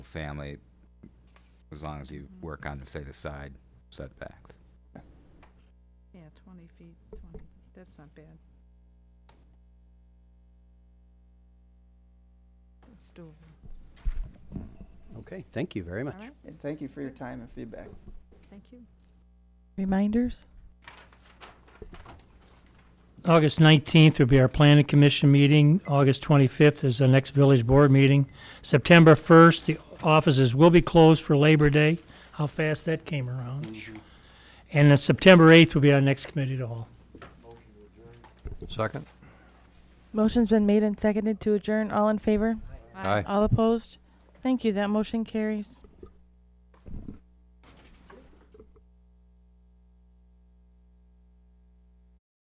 family, as long as you work on, say, the side setbacks. Yeah, 20 feet, 20, that's not bad. It's doable. Okay, thank you very All much. right, And thank you for your time and feedback. thank you. Reminders? August 19th will be our planning commission meeting. August 25th is the next village board meeting. September 1st, the offices will be closed for Labor Day. How fast that came around. And then September 8th will be our next committee to all. Second? Motion's been made and seconded to adjourn. All in favor? Aye. All opposed? Thank you. That motion carries.